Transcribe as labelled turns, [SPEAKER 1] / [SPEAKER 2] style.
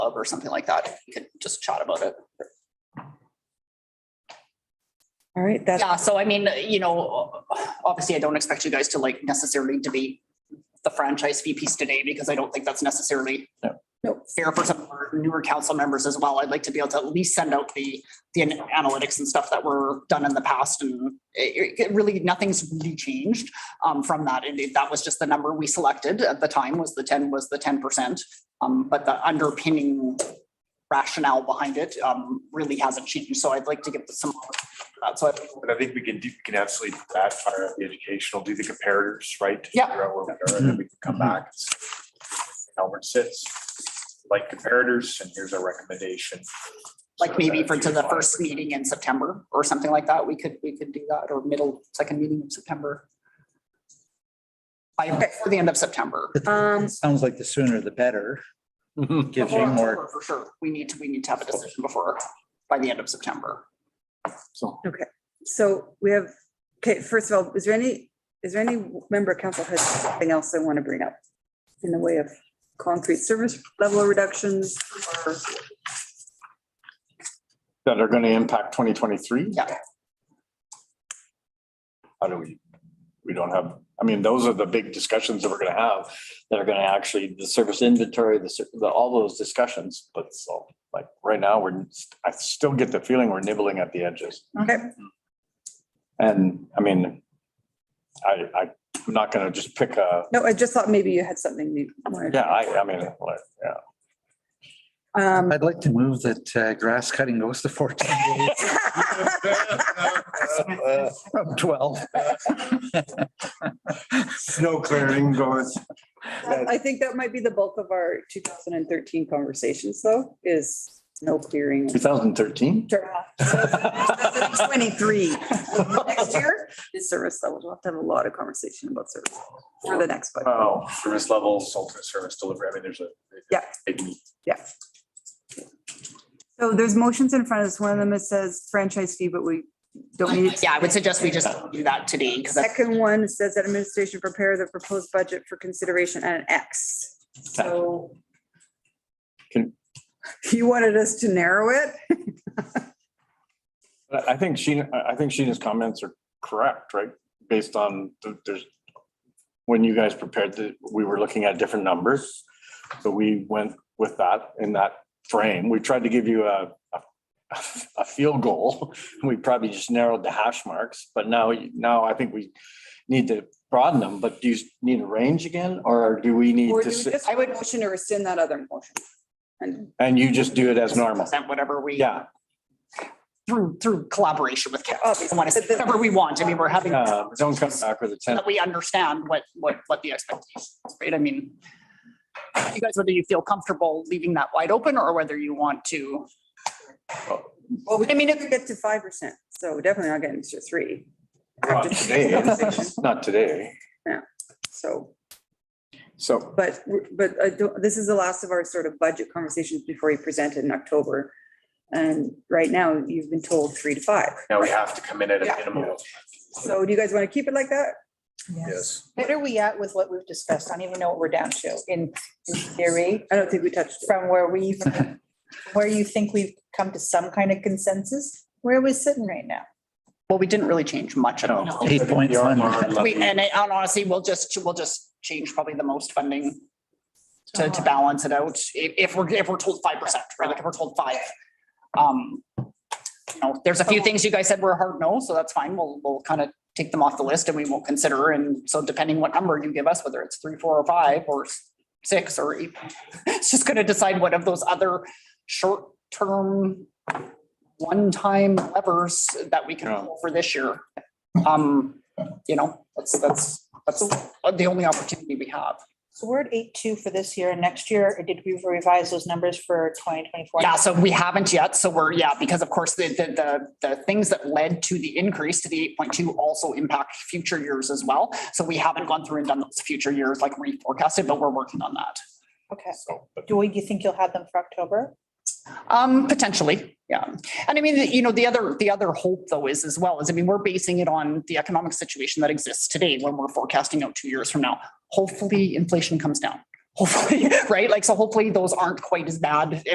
[SPEAKER 1] club or something like that, you could just chat about it.
[SPEAKER 2] All right, that's,
[SPEAKER 1] Yeah, so I mean, you know, obviously I don't expect you guys to like necessarily debate the franchise fee piece today because I don't think that's necessarily
[SPEAKER 3] No.
[SPEAKER 2] Nope.
[SPEAKER 1] fair for some of our newer council members as well. I'd like to be able to at least send out the, the analytics and stuff that were done in the past and it, it really, nothing's really changed um, from that. And that was just the number we selected at the time was the ten, was the ten percent. Um, but the underpinning rationale behind it um, really hasn't changed. So I'd like to give some, uh, so I
[SPEAKER 4] But I think we can, do- we can absolutely do that, fire up the educational, do the comparators, right? to
[SPEAKER 1] Yeah.
[SPEAKER 4] Figure out where we are, and then we can come back. and see How it sits, like comparators, and here's our recommendation.
[SPEAKER 1] like maybe for to the first meeting in September or something like that, we could, we could do that, or middle, second meeting in September. By, before the end of September.
[SPEAKER 2] um,
[SPEAKER 3] Sounds like the sooner the better. Gives you
[SPEAKER 1] Before
[SPEAKER 3] more,
[SPEAKER 1] October, For sure, we need to, we need to have a decision before, by the end of September.
[SPEAKER 2] so we have, okay, first of all, is there any, is there any member of council has something else they want to bring up? In the way of concrete service level reductions or?
[SPEAKER 5] that are going to impact twenty twenty-three?
[SPEAKER 1] Yeah.
[SPEAKER 5] How do we, we don't have, I mean, those are the big discussions that we're going to have, that are going to actually, the service inventory, the, ser- the, all those discussions, but so, like, right now, we're, I still get the feeling we're nibbling at the edges.
[SPEAKER 2] Okay.
[SPEAKER 5] And, I mean, I, I, I'm not going to just pick a,
[SPEAKER 2] No, I just thought maybe you had something you wanted.
[SPEAKER 5] yeah, I, I mean, like, yeah.
[SPEAKER 2] Um,
[SPEAKER 3] I'd like to move that uh, grass cutting goes to fourteen days from twelve.
[SPEAKER 4] Snow clearing going.
[SPEAKER 2] I think that might be the bulk of our two thousand and thirteen conversations though, is no clearing.
[SPEAKER 5] Two thousand thirteen?
[SPEAKER 2] Twenty-three. Next year is service levels. We'll have to have a lot of conversation about service for the next budget.
[SPEAKER 4] Oh, service levels, ultimate service delivery, I mean, there's a.
[SPEAKER 2] Yeah.
[SPEAKER 4] Big
[SPEAKER 2] So there's motions in front of us. One of them, it says franchise fee, but we don't need. it.
[SPEAKER 1] Yeah, I would suggest we just don't do that today, because that's
[SPEAKER 2] Second one says that administration prepare the proposed budget for consideration at an X. So.
[SPEAKER 5] Can-
[SPEAKER 2] You wanted us to narrow it?
[SPEAKER 5] I I think Sheena, I I think Sheena's comments are correct, right? Based on th- there's, when you guys prepared the, we were looking at different numbers. So we went with that in that frame. We tried to give you a, a- a field goal. We probably just narrowed the hash marks, but now, you- now I think we need to broaden them, but do you s- need a range again? Or do we need
[SPEAKER 2] Or do
[SPEAKER 5] to,
[SPEAKER 2] we
[SPEAKER 5] s-
[SPEAKER 2] just- I would motion to rescind that other motion. And
[SPEAKER 5] and you just do it as normal?
[SPEAKER 1] percent whatever we.
[SPEAKER 5] Yeah.
[SPEAKER 1] Through, through collaboration with council,
[SPEAKER 2] Obviously,
[SPEAKER 1] I want to
[SPEAKER 2] but the-
[SPEAKER 1] say whatever we want, I mean, we're having, so
[SPEAKER 5] Uh, Don't come back with a ten.
[SPEAKER 1] that we understand what, what, what the expectations, right? I mean, you guys, whether you feel comfortable leaving that wide open or whether you want to
[SPEAKER 2] Well, we mean, if we get to five percent, so definitely not getting to three.
[SPEAKER 5] Not today. Not today.
[SPEAKER 2] So,
[SPEAKER 5] So
[SPEAKER 2] but, but I don't, this is the last of our sort of budget conversations before you present it in October. And right now, you've been told three to five.
[SPEAKER 4] Now we have to come in at a
[SPEAKER 2] Yeah.
[SPEAKER 4] minimum of
[SPEAKER 2] So do you guys want to keep it like that?
[SPEAKER 4] Yes.
[SPEAKER 6] What are we at with what we've discussed? I don't even know what we're down to in in theory
[SPEAKER 2] I don't think we touched it.
[SPEAKER 6] from where we, where you think we've come to some kind of consensus. Where are we sitting right now?
[SPEAKER 1] Well, we didn't really change much at all.
[SPEAKER 3] Eight point one.
[SPEAKER 1] We, and I- and honestly, we'll just, we'll just change probably the most funding to,
[SPEAKER 6] Uh-huh.
[SPEAKER 1] to balance it out. If, if we're, if we're told five percent, right? Like if we're told five. Um, you know, there's a few things you guys said were a hard no, so that's fine. We'll, we'll kind of take them off the list and we won't consider. And so depending what number you give us, whether it's three, four or five or s- six or eight, it's just going to decide what of those other short-term one-time levers that we can
[SPEAKER 5] Yeah.
[SPEAKER 1] pull for this year. Um, you know, that's, that's, that's the only opportunity we have.
[SPEAKER 6] So we're at eight two for this year and next year, or did we revise those numbers for twenty twenty four?
[SPEAKER 1] Yeah, so we haven't yet. So we're, yeah, because of course, the, the, the, the things that led to the increase to the eight point two also impact future years as well. So we haven't gone through and done those future years like reforecasted, but we're working on that.
[SPEAKER 6] Okay.
[SPEAKER 5] So, but
[SPEAKER 6] Do we, do you think you'll have them for October?
[SPEAKER 1] Um, potentially, yeah. And I mean, you know, the other, the other hope though is as well is, I mean, we're basing it on the economic situation that exists today when we're forecasting out two years from now. Hopefully inflation comes down, hopefully, right? Like, so hopefully those aren't quite as bad